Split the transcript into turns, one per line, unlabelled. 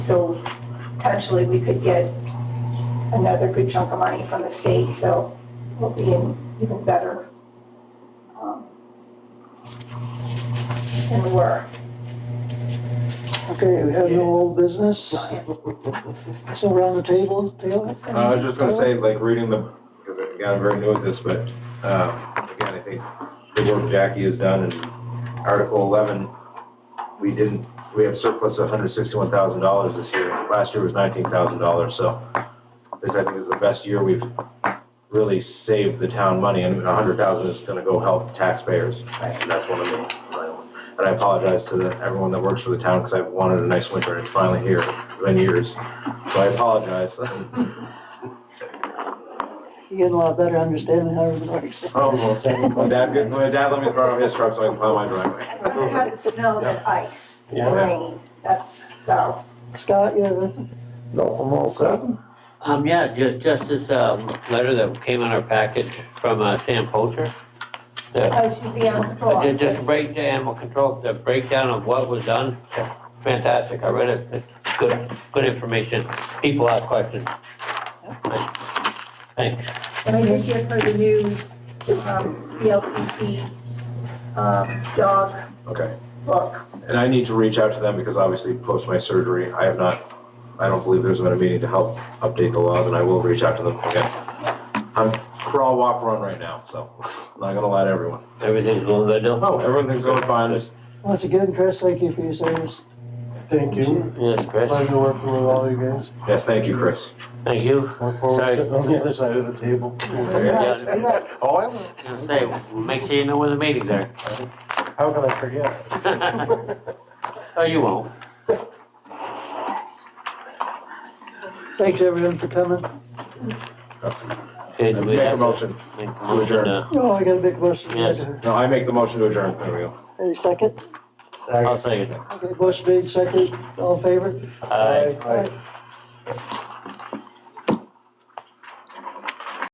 So potentially, we could get another good chunk of money from the state, so we'll be in even better um, than we were.
Okay, we have no old business, so around the table, Taylor?
Uh, I was just gonna say, like, reading the, because I got very new at this, but, um, again, I think the work Jackie has done in Article eleven, we didn't, we have surplus of hundred sixty-one thousand dollars this year. Last year was nineteen thousand dollars, so this, I think, is the best year we've really saved the town money, and a hundred thousand is gonna go help taxpayers. And that's one of the, and I apologize to the, everyone that works for the town, because I've wanted a nice winter, and it's finally here, it's been years, so I apologize.
You're getting a lot better understanding how everything works.
Almost. My dad, good- my dad let me borrow his truck so I can plow my driveway.
I'd rather have it snow than ice, or
Yeah.
rain, that's, so,
Scott, you have anything?
No, I'm all set.
Um, yeah, just, just this, um, letter that came in our package from, uh, Sam Poulter. The,
I should be on the draw.
just, just break the animal control, the breakdown of what was done, fantastic, I read it, It's good, good information, people ask questions. Thanks,
And I did give her the new um, BLCT um, dog
Okay,
book.
and I need to reach out to them because obviously post my surgery, I have not, I don't believe there's been a meeting to help update the laws and I will reach out to them again. I'm crawl, walk, run right now, so not gonna lie to everyone.
everything's going good though?
Oh, everything's going fine, just,
Once again, Chris, thank you for your service.
Thank you.
Yes, Chris,
Pleasure working with all you guys.
yes, thank you, Chris.
thank you.
Look forward to
Sorry.
sitting on the other side of the table.
Yes,
yes.
Oh, I will.
I was gonna say, make sure you know when the meetings are.
How can I forget?
Oh, you won't.
Thanks everyone for coming.
Okay, do we
Make a
have to
motion.
make a motion to-
Oh, I got a big motion.
Yes.
No, I make the motion to adjourn, there we go.
Any second?
I'll say it.
Okay, motion made, second, all in favor?
Aye.
Aye.